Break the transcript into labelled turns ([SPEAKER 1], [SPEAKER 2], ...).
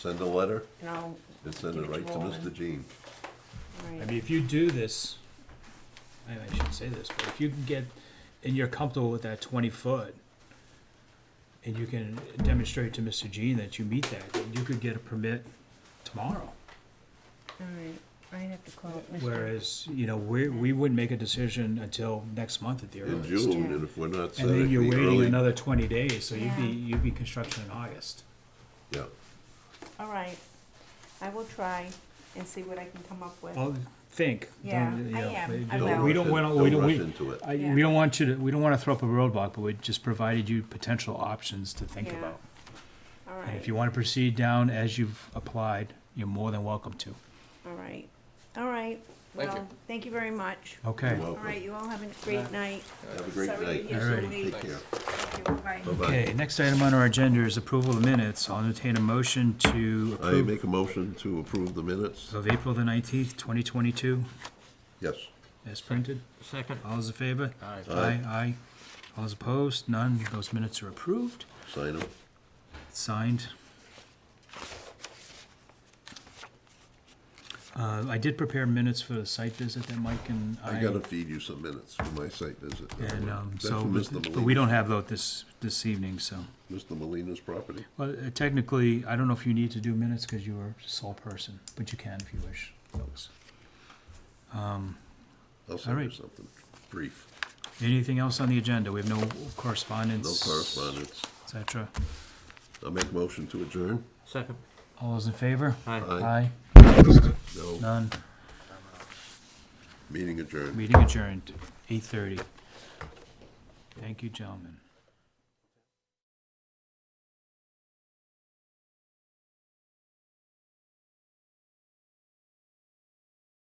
[SPEAKER 1] Send a letter
[SPEAKER 2] and I'll.
[SPEAKER 1] and send
[SPEAKER 2] give
[SPEAKER 1] it right to
[SPEAKER 2] Roland.
[SPEAKER 1] Mr. Jean.
[SPEAKER 2] Right.
[SPEAKER 3] I mean, if you do this, I, I shouldn't say this, but if you can get, and you're comfortable with that twenty foot, and you can demonstrate to Mr. Jean that you meet that, then you could get a permit tomorrow.
[SPEAKER 2] All right, I'd have to call Mr.
[SPEAKER 3] Whereas, you know, we, we wouldn't make a decision until next month at the
[SPEAKER 1] In
[SPEAKER 3] earliest.
[SPEAKER 1] June, and if we're not set
[SPEAKER 3] And
[SPEAKER 1] at
[SPEAKER 3] then
[SPEAKER 1] the
[SPEAKER 3] you're waiting
[SPEAKER 1] early,
[SPEAKER 3] another twenty days, so you'd be,
[SPEAKER 2] Yeah.
[SPEAKER 3] you'd be construction in August.
[SPEAKER 1] yeah,
[SPEAKER 2] All right, I will try and see what I can come up with.
[SPEAKER 3] Well, think.
[SPEAKER 2] Yeah,
[SPEAKER 3] Don't, you
[SPEAKER 2] I
[SPEAKER 3] know,
[SPEAKER 2] am. I
[SPEAKER 3] don't-
[SPEAKER 2] will.
[SPEAKER 3] We don't
[SPEAKER 1] Don't
[SPEAKER 3] wanna,
[SPEAKER 1] rush it-
[SPEAKER 3] we
[SPEAKER 1] don't
[SPEAKER 3] don't, we,
[SPEAKER 1] rush into it.
[SPEAKER 3] I,
[SPEAKER 2] Yeah.
[SPEAKER 3] we don't want you to, we don't wanna throw up a roadblock, but we just provided you potential options to think
[SPEAKER 2] Yeah.
[SPEAKER 3] about.
[SPEAKER 2] All
[SPEAKER 3] And
[SPEAKER 2] right,
[SPEAKER 3] if you wanna proceed down as you've applied, you're more than welcome to.
[SPEAKER 2] all right, all right.
[SPEAKER 4] Thank you.
[SPEAKER 2] Well, thank you very much.
[SPEAKER 3] Okay.
[SPEAKER 2] All
[SPEAKER 1] welcome.
[SPEAKER 2] right, you all have a great night.
[SPEAKER 1] Have a great
[SPEAKER 2] Sorry to
[SPEAKER 1] night.
[SPEAKER 2] hear
[SPEAKER 3] Oh, All
[SPEAKER 2] so
[SPEAKER 3] righty.
[SPEAKER 2] late.
[SPEAKER 1] Take care.
[SPEAKER 2] Thank you. Bye.
[SPEAKER 1] Bye-bye.
[SPEAKER 3] Okay, next item on our agenda is approval of minutes. I'll entertain a motion to
[SPEAKER 1] I
[SPEAKER 3] approve
[SPEAKER 1] make a motion to approve the minutes.
[SPEAKER 3] of April the nineteenth, twenty twenty-two,
[SPEAKER 1] Yes.
[SPEAKER 3] as printed.
[SPEAKER 4] Second.
[SPEAKER 3] All those in favor?
[SPEAKER 4] Aye.
[SPEAKER 3] Aye, aye. All those opposed? None. Those minutes are approved.
[SPEAKER 1] Sign them.
[SPEAKER 3] signed. Uh, I did prepare minutes for the site visit that Mike and I.
[SPEAKER 1] I gotta feed you some minutes for my site visit.
[SPEAKER 3] And, um,
[SPEAKER 1] That's
[SPEAKER 3] so,
[SPEAKER 1] for
[SPEAKER 3] but
[SPEAKER 1] Mr.
[SPEAKER 3] but we
[SPEAKER 1] Molina-
[SPEAKER 3] don't have those this, this evening, so.
[SPEAKER 1] Mr. Molina's property.
[SPEAKER 3] Well, uh, technically, I don't know if you need to do minutes because you are sole person, but you can if you wish, folks.
[SPEAKER 1] I'll send you
[SPEAKER 3] right.
[SPEAKER 1] something brief.
[SPEAKER 3] Anything else on the agenda? We have no
[SPEAKER 1] No
[SPEAKER 3] correspondence.
[SPEAKER 1] correspondence.
[SPEAKER 3] Et cetera.
[SPEAKER 1] I'll make a motion to adjourn.
[SPEAKER 4] Second.
[SPEAKER 3] All those in favor?
[SPEAKER 4] Aye.
[SPEAKER 3] Aye.
[SPEAKER 1] No,
[SPEAKER 3] None.
[SPEAKER 1] meeting adjourned.
[SPEAKER 3] Meeting adjourned, eight thirty. Thank you, gentlemen.